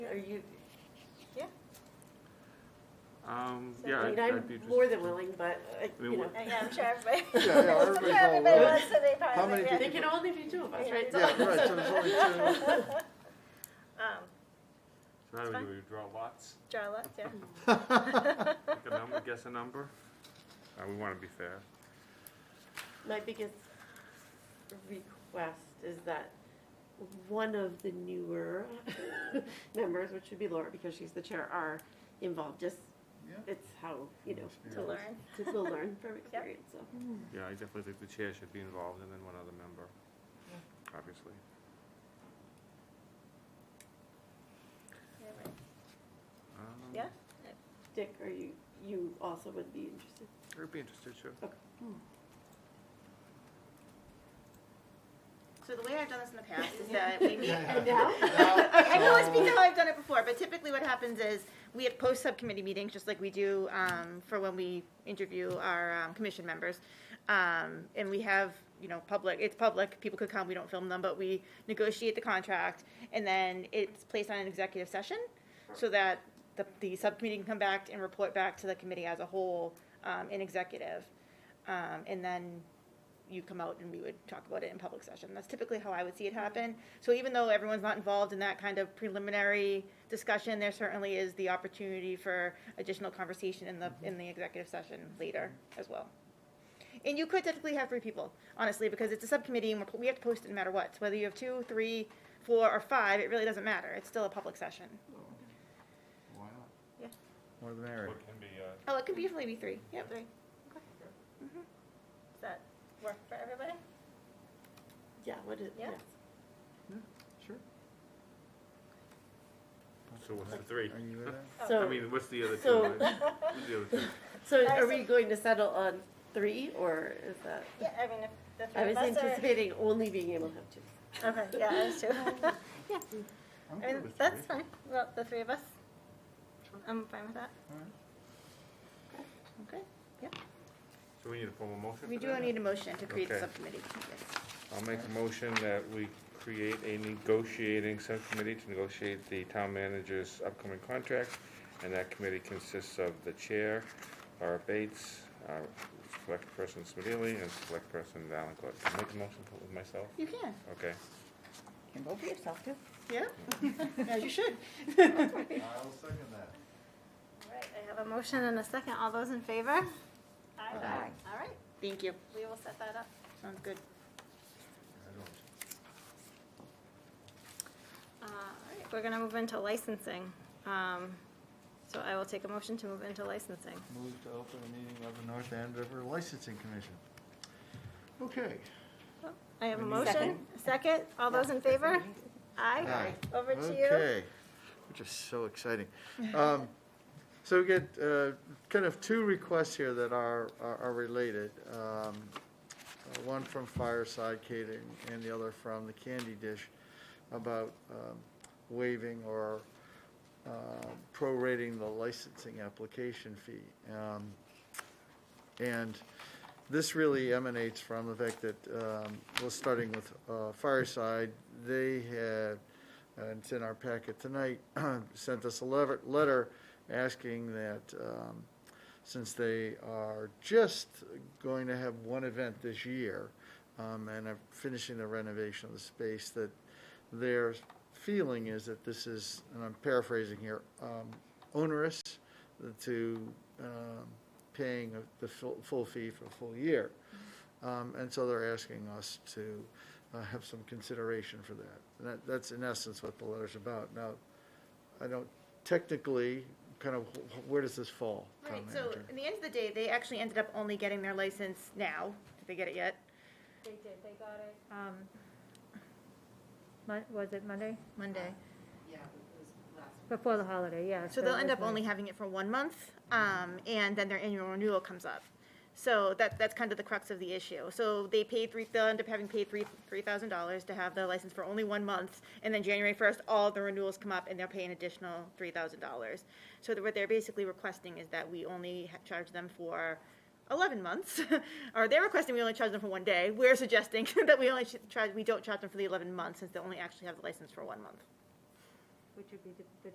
you, yeah, Um, So, yeah, I mean, I'd, I'm I'd be interested. more than willing, but, uh, I mean, you know, what- Uh, yeah, I'm sure everybody. I'm Yeah, yeah, sure everybody's all everybody right. wants to be part How of many it, people- yeah. they can only be two of us, right? Yeah, right, so there's only two. Um, So how do we, fine. do? we draw lots? Draw lots, yeah. Pick a number, guess a number? Uh, we wanna be fair. My biggest request is that one of the newer members, which would be Laura, because she's the chair, are involved, just, Yeah. it's how, you know, To learn. to, to learn from experience, so. Yeah, I definitely think the chair should be involved and then one other member, obviously. Yeah, right. Um, Yeah? Dick, are you, you also would be interested? I'd be interested, sure. So the way I've done this in the past is that we meet, Yeah. And now? I can only speak to how I've done it before, but typically what happens is we have post-subcommittee meetings, just like we do um, for when we interview our um, commission members. Um, And we have, you know, public, it's public, people could come, we don't film them, but we negotiate the contract. And then it's placed on an executive session so that the, the subcommittee can come back and report back to the committee as a whole um, in executive. Um, And then you come out and we would talk about it in public session. That's typically how I would see it happen. So even though everyone's not involved in that kind of preliminary discussion, there certainly is the opportunity for additional conversation in Mm-hmm. the, in the executive session later as well. And you could typically have three people, honestly, because it's a subcommittee and we're, we have to post it no matter what. So Whether you have two, three, four, or five, it really doesn't matter. It's still a public session. Why not? Yeah. More the merrier. What can be, uh, Oh, it could be maybe three, Mm-hmm. yep. Three. Does that work for everybody? Yeah, what is, Yeah. yeah. Sure. so what's the three? Are you with that? Oh. I So- mean, what's the other two? so- right? Who's the other two? So I are we see. going to settle on three, or is that? Yeah, I mean, if the I three was of us are. anticipating only being able to have two. Okay, yeah, I was too. I'm I good mean, with three. that's fine, well, the three of us. I'm fine with that. All right. Okay. So we need a formal motion We for do that? need a motion to create the Okay. subcommittee. Yes. I'll make a motion that we create a negotiating subcommittee to negotiate the town manager's upcoming contract. And that committee consists of the chair, Laura Bates, uh, select person Smedili, and select person Valencourt. Can I Make a motion for- with myself? You can, Okay. Can vote for yourself too. yeah? As you should. I'll second that. All right, I have a motion and a second, all those in favor? Aye. All right, Thank you. we will set that up. Sounds good. I don't. Uh, all right, We're gonna move into licensing. Um, So I will take a motion to move into licensing. Move to open a meeting of the North Andover Licensing Commission. Okay. I have a We need- motion, Second. a second, all those in favor? Aye. Aye. Over to you. Okay, which is so exciting. Um, So we get uh, kind of two requests here that are, are are related. Um, uh, One from Fireside Catering and the other from the Candy Dish about um, waiving or um, prorating the licensing application fee. Um, And this really emanates from the fact that, um, well, starting with uh, Fireside, they had and it's in our packet tonight, sent us a lever, letter asking that, um, since they are just going to have one event this year, um, and are finishing the renovation of the space, that their feeling is that this is, and I'm paraphrasing here, um, onerous to, um, paying the full, full fee for a full year. Um, and so they're asking us to, uh, have some consideration for that. And that, that's in essence what the letter's about. Now, I don't, technically, kind of, wh- wh- where does this fall? town Right, so manager? in the end of the day, they actually ended up only getting their license now. Did they get it yet? They did, they got it. Um, Mon- Was it Monday? Monday. Before the holiday, yeah. So they'll it end was up only having it for one month, um, and then their annual renewal comes up. So that, that's kind of the crux of the issue. So they paid three, they'll end up having paid three, three thousand dollars to have the license for only one month, and then January first, all the renewals come up and they'll pay an additional three thousand dollars. So that what they're basically requesting is that we only ha- charge them for eleven months, or they're requesting we only charge them for one day. We're suggesting that we only should charge, we don't charge them for the eleven months, since they only actually have the license for one month. Which would be the- the